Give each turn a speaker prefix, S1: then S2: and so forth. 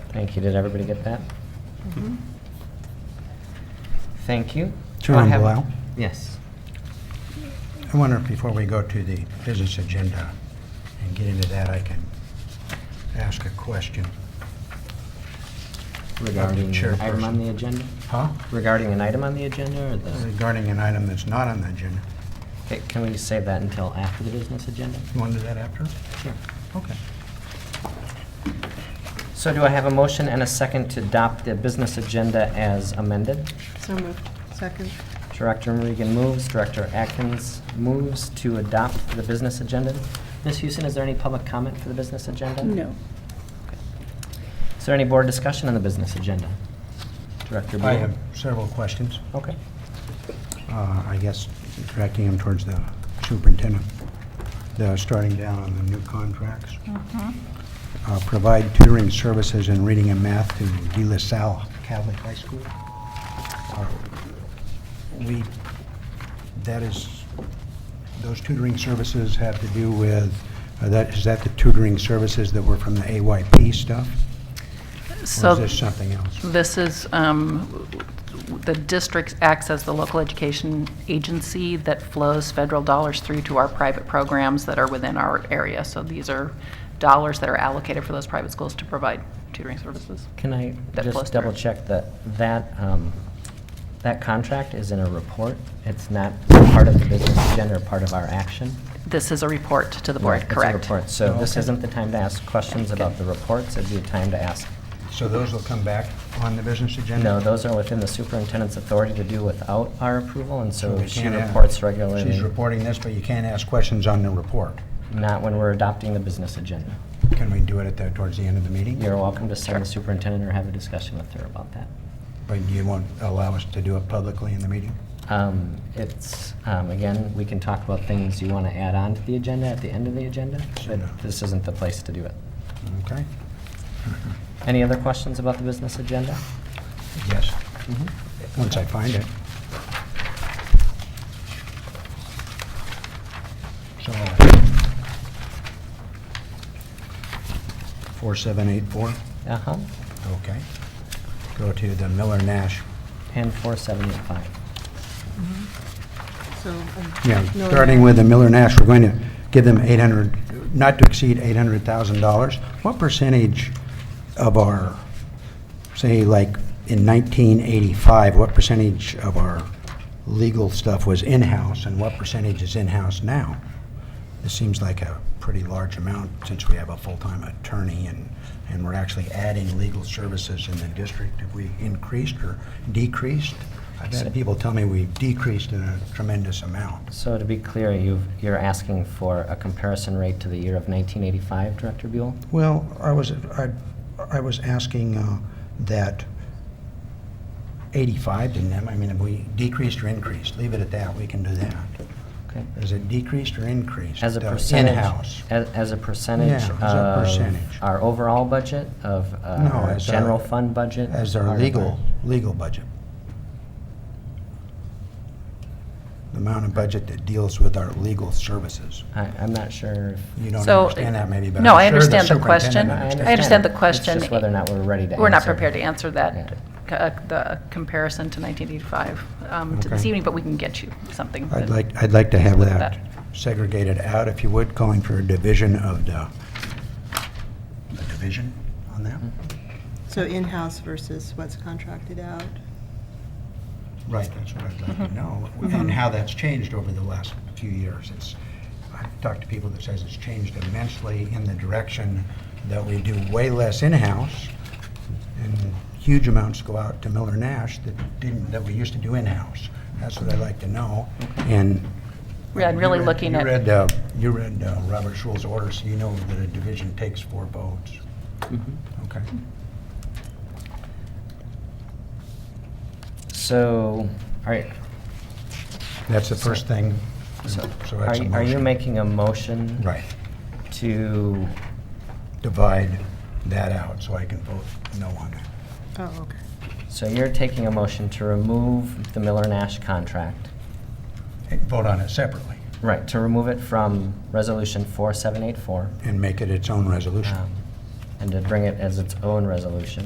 S1: Thank you. Did everybody get that? Thank you.
S2: Chairman
S1: I have-
S2: Blau?
S1: Yes.
S2: I wonder if before we go to the business agenda and get into that, I can ask a question.
S1: Regarding an item
S2: chairperson.
S1: on the agenda?
S2: Huh?
S1: Regarding an item on the agenda or the,
S2: Regarding an item that's not on the agenda.
S1: Okay, can we save that until after the business agenda?
S2: You want to do that after?
S1: Sure.
S2: Okay.
S1: So do I have a motion and a second to adopt the business agenda as amended?
S3: So moved. Second.
S1: Director Regan moves, Director Atkins moves to adopt the business agenda. Ms. Houston, is there any public comment for the business agenda?
S3: No.
S1: Is there any board discussion on the business agenda? Director Buell?
S2: I have several questions.
S1: Okay.
S2: Uh, I guess directing them towards the superintendent. The starting down on the new contracts. Uh, Provide tutoring services in reading and math to De La Salle Catholic High School. Uh, We, that is, those tutoring services have to do with, uh, that, is that the tutoring services that were from the AYP stuff? Or is
S4: So
S2: this something else?
S4: this is, um, the district acts as the local education agency that flows federal dollars through to our private programs that are within our area. So these are dollars that are allocated for those private schools to provide tutoring services.
S1: Can I
S4: That flows
S1: just
S4: through.
S1: double check that that, um, that contract is in a report? It's not part of the business agenda or part of our action?
S4: This is a report to the board,
S1: It's a
S4: correct?
S1: report. So this
S2: Okay.
S1: isn't the time to ask questions about the reports. It'd be a time to ask,
S2: So those will come back on the business agenda?
S1: no, those are within the superintendent's authority to do without our approval, and
S2: So
S1: so
S2: we
S1: she
S2: can't ask-
S1: reports regularly.
S2: She's reporting this, but you can't ask questions on the report.
S1: Not when we're adopting the business agenda.
S2: Can we do it at the, towards the end of the meeting?
S1: You're welcome to send the superintendent or have a discussion with her about that.
S2: But you won't allow us to do it publicly in the meeting?
S1: Um, It's, um, again, we can talk about things you want to add on to the agenda at the end of the agenda,
S2: Sure.
S1: but this isn't the place to do it.
S2: Okay?
S1: Any other questions about the business agenda?
S2: Yes. Once I find it. So. 4784,
S1: Uh-huh.
S2: okay. Go to the Miller Nash.
S1: And 4785.
S3: So. um,
S2: Yeah,
S3: no-
S2: starting with the Miller Nash, we're going to give them 800, not to exceed $800,000. What percentage of our, say, like in 1985, what percentage of our legal stuff was in-house and what percentage is in-house now? This seems like a pretty large amount since we have a full-time attorney and, and we're actually adding legal services in the district. Have we increased or decreased? I've had people tell me we decreased in a tremendous amount.
S1: So to be clear, you've, you're asking for a comparison rate to the year of 1985, Director Buell?
S2: Well, I was, I, I was asking uh, that 85 didn't have, I mean, have we decreased or increased? Leave it at that, we can do that.
S1: Okay.
S2: Is it decreased or increased?
S1: As a
S2: The
S1: percentage?
S2: In-house.
S1: As, as a percentage
S2: Yeah,
S1: of?
S2: as a percentage.
S1: Our overall budget, of uh,
S2: No,
S1: our
S2: as our-
S1: general fund budget?
S2: As
S1: Part
S2: our
S1: of
S2: legal, legal budget. The amount of budget that deals with our legal services.
S1: I, I'm not sure if
S2: You don't
S4: So-
S2: understand that maybe, but
S4: No, I
S2: I'm sure the
S4: understand the question.
S2: superintendent
S4: I
S2: understands.
S4: I understand the
S1: It's
S4: question.
S1: just whether or not we're ready to answer.
S4: We're not prepared to answer
S1: Yeah.
S4: that, c- uh, the comparison to 1985 um, to this
S2: Okay.
S4: evening, but we can get you something.
S2: I'd
S4: that-
S2: like, I'd like to have
S4: Look at
S2: that segregated out, if you would, calling for a division of the, a division on that?
S3: So in-house versus what's contracted out?
S2: Right, that's what I'd like to know, and how that's changed over the last few years. It's, I've talked to people that says it's changed immensely in the direction that we do way less in-house, and huge amounts go out to Miller Nash that didn't, that we used to do in-house. That's what I'd like to know, and
S4: Yeah, I'm really
S2: You read-
S4: looking at.
S2: You read, uh, you read uh, Robert's Rules of Order, so you know that a division takes four votes.
S4: Mm-hmm.
S2: Okay.
S1: So, all right,
S2: That's the first thing.
S1: so
S2: So
S1: are
S2: that's a
S1: you, are you
S2: motion.
S1: making a motion?
S2: Right.
S1: To,
S2: Divide that out so I can vote no on it.
S3: Oh, okay.
S1: so you're taking a motion to remove the Miller Nash contract?
S2: Hey, Vote on it separately
S1: Right, to remove it from Resolution 4784?
S2: and make it its own resolution.
S1: Oh. um, And to bring it as its own resolution?